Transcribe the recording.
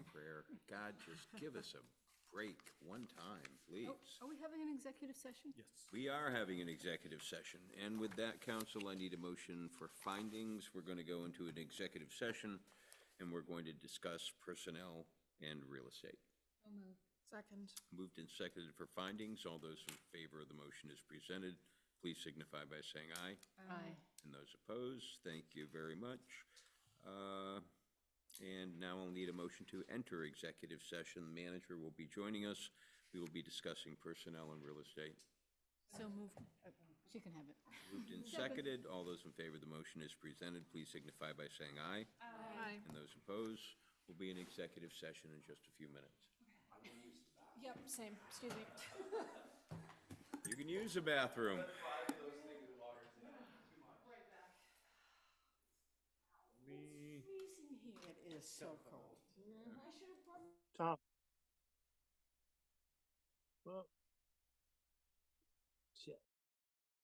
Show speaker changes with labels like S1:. S1: here. God, just give us a break one time,
S2: Oh,
S1: please.
S2: Are we having an executive session?
S3: Yes.
S1: We are having an executive session, and with that, council, I need a motion for findings. We're going to go into an executive session, and we're going to discuss personnel and real estate.
S2: So moved.
S4: Second.
S1: Moved and seconded for findings. All those in favor of the motion as presented, please signify by saying aye.
S2: Aye.
S1: And those opposed, thank you very much. Uh, And now I'll need a motion to enter executive session. The Manager will be joining us. We will be discussing personnel and real estate.
S2: So moved. She can have it.
S1: Moved and seconded. All those in favor of the motion is presented, please signify by saying aye.
S4: Aye.
S1: And those opposed, we'll be in executive session in just a few minutes.
S4: Yep, same, excuse me.
S1: You can use the bathroom.
S4: It is so cold.
S5: Tom. Well,